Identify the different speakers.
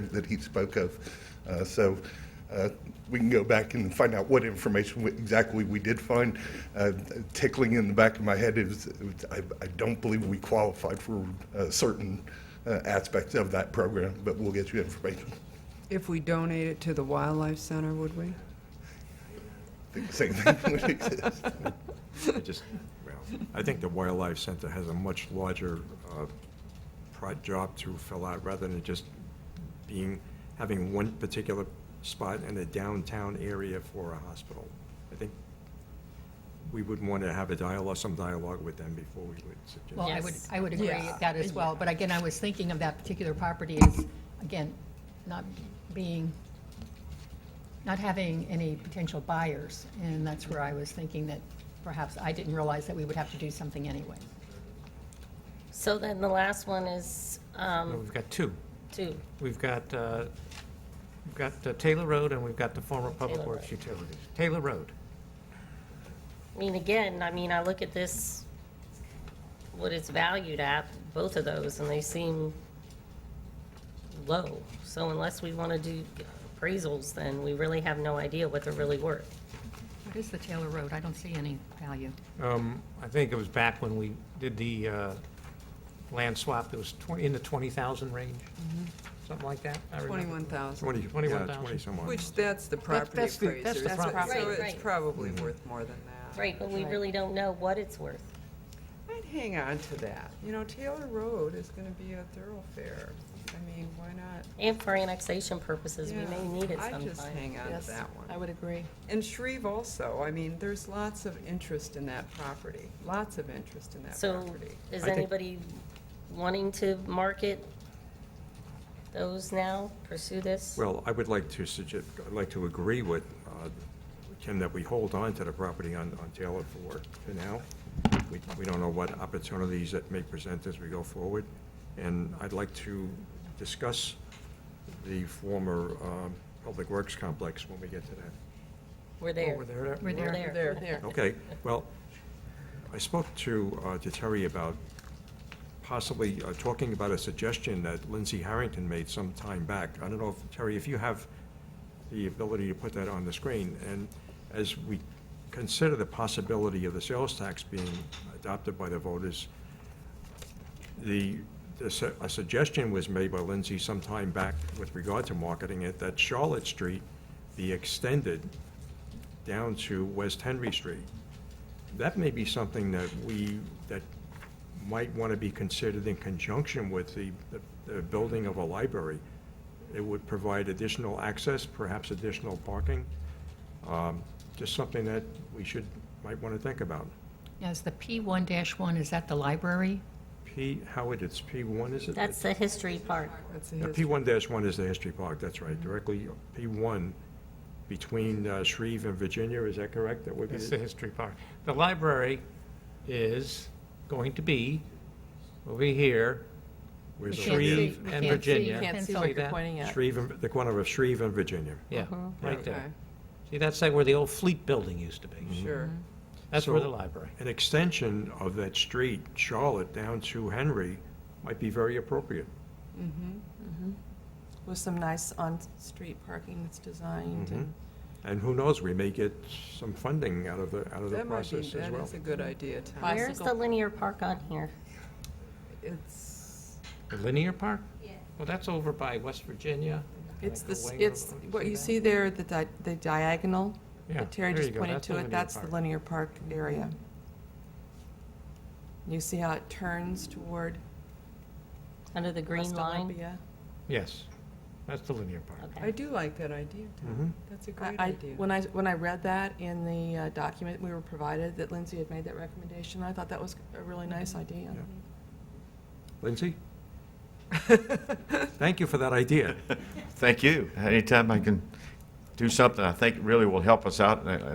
Speaker 1: that, that he spoke of. Uh, So uh, we can go back and find out what information we- exactly we did find. Uh, Tickling in the back of my head is, I I don't believe we qualified for uh, certain uh, aspects of that program, but we'll get you information.
Speaker 2: If we donate it to the Wildlife Center, would we?
Speaker 1: I think the Same thing would exist.
Speaker 3: I just, well, I think the Wildlife Center has a much larger uh, pro- job to fill out, rather than just being, having one particular spot in a downtown area for a hospital. I think we would want to have a dialogue, some dialogue with them before we would suggest.
Speaker 4: Well, I would,
Speaker 5: Yes.
Speaker 4: I would agree
Speaker 2: Yeah.
Speaker 4: with that as well, but again, I was thinking of that particular property as, again, not being, not having any potential buyers, and that's where I was thinking that perhaps I didn't realize that we would have to do something anyway.
Speaker 5: So then the last one is,
Speaker 6: Well,
Speaker 5: um,
Speaker 6: We've got two.
Speaker 5: two.
Speaker 6: We've got, uh, we've got uh, Taylor Road and we've got the former Public
Speaker 5: Taylor
Speaker 6: Works
Speaker 5: Road.
Speaker 6: Utilities. Taylor Road.
Speaker 5: I mean, again, I mean, I look at this, what it's valued at, both of those, and they seem low. So unless we want to do appraisals, then we really have no idea what they're really worth.
Speaker 4: What is the Taylor Road? I don't see any value.
Speaker 6: Um, I think it was back when we did the uh, land swap, it was twen- in the 20,000 range, something like that. I remember.
Speaker 2: 21,000,
Speaker 3: Twenty, yeah,
Speaker 6: 21,000.
Speaker 3: twenty some odd.
Speaker 2: which that's the property
Speaker 6: that's the- that's the
Speaker 2: appraiser's.
Speaker 6: property.
Speaker 2: price, So
Speaker 5: Right,
Speaker 2: it's
Speaker 5: right.
Speaker 2: probably
Speaker 3: Mm-hmm.
Speaker 2: worth more than that.
Speaker 5: Right, but we really don't know what it's worth.
Speaker 2: I'd hang on to that. You know, Taylor Road is going to be a thoroughfare. I mean, why not?
Speaker 5: And for annexation purposes, we may
Speaker 2: Yeah,
Speaker 5: need it
Speaker 2: I'd just
Speaker 5: sometime.
Speaker 2: hang on to that one.
Speaker 7: I would agree.
Speaker 2: And Shreve also, I mean, there's lots of interest in that property, lots of interest in that
Speaker 5: So
Speaker 2: property.
Speaker 5: is
Speaker 6: I think-
Speaker 5: anybody wanting to market those now, pursue this?
Speaker 3: Well, I would like to suggest, I'd like to agree with uh, Kim that we hold on to the property on, on Taylor for, for now. We, we don't know what opportunities that may present as we go forward. And I'd like to discuss the former um, Public Works Complex when we get to that.
Speaker 5: We're
Speaker 6: Oh,
Speaker 5: there.
Speaker 6: we're there.
Speaker 4: We're there.
Speaker 5: there.
Speaker 2: There,
Speaker 3: Okay, well, I spoke to, uh, to Terry about possibly uh, talking about a suggestion that Lindsay Harrington made some time back. I don't know, if Terry, if you have the ability to put that on the screen, and as we consider the possibility of the sales tax being adopted by the voters, the, the su- a suggestion was made by Lindsay some time back with regard to marketing it, that Charlotte Street be extended down to West Henry Street. That may be something that we, that might want to be considered in conjunction with the, the- the building of a library. It would provide additional access, perhaps additional parking, um, just something that we should, might want to think about.
Speaker 4: Yes, the P1-1, is that the library?
Speaker 3: P, Howard, it's P one, is it?
Speaker 5: That's the history part.
Speaker 2: that's a
Speaker 3: Yeah,
Speaker 2: history.
Speaker 3: P1 dash one is the history park, that's right, directly, P1, between uh, Shreve and Virginia, is that correct? That would be,
Speaker 6: It's the history part. The library is going to be over here,
Speaker 3: where's
Speaker 4: We
Speaker 3: the-
Speaker 4: can't see-
Speaker 6: Shreve
Speaker 4: we
Speaker 6: and
Speaker 4: can't see-
Speaker 6: Virginia.
Speaker 4: you
Speaker 7: Can't see
Speaker 4: pencil.
Speaker 7: what
Speaker 6: that?
Speaker 7: you're pointing at.
Speaker 3: Shreve, and- the corner of Shreve and Virginia.
Speaker 6: yeah, right
Speaker 2: Okay.
Speaker 6: there. See, that's like where the old fleet building used to be.
Speaker 2: Sure.
Speaker 5: Mm-hmm.
Speaker 6: That's where
Speaker 3: So-
Speaker 6: the library.
Speaker 3: An extension of that street, Charlotte, down to Henry, might be very appropriate.
Speaker 7: With some nice on-street parking that's designed
Speaker 6: Mm-hmm.
Speaker 7: and
Speaker 3: And who knows, we may get some funding out of the, out of the
Speaker 2: That might be,
Speaker 3: process as
Speaker 2: that
Speaker 3: well.
Speaker 2: is a good idea, Tom.
Speaker 7: Bye.
Speaker 5: Where's the
Speaker 7: Bicycle.
Speaker 5: linear park on here?
Speaker 2: It's,
Speaker 6: The linear park? Yeah. Well, that's over by West Virginia.
Speaker 7: It's
Speaker 6: Like
Speaker 7: this,
Speaker 6: away
Speaker 7: it's,
Speaker 6: over-
Speaker 7: what
Speaker 6: see
Speaker 7: you
Speaker 6: that?
Speaker 7: see there, the di- the diagonal,
Speaker 6: Yeah,
Speaker 7: that Terry
Speaker 6: there you
Speaker 7: just
Speaker 6: go.
Speaker 7: pointed
Speaker 6: That's the linear
Speaker 7: to
Speaker 6: Mm-hmm.
Speaker 7: it, that's the
Speaker 6: park.
Speaker 7: linear park area. You see how it turns toward
Speaker 5: Under the green
Speaker 7: West
Speaker 5: line?
Speaker 7: Olympia?
Speaker 6: Yes, that's the linear park.
Speaker 2: I
Speaker 5: Okay.
Speaker 2: do like that idea, Tom. That's a
Speaker 7: I-
Speaker 2: great
Speaker 7: I,
Speaker 2: idea.
Speaker 7: when I, when I read that in the uh, document we were provided, that Lindsay had made that recommendation, I thought that was a really nice idea.
Speaker 3: Lindsay? Thank you for that idea.
Speaker 8: Thank you. Anytime I can do something I think really will help us out, and I-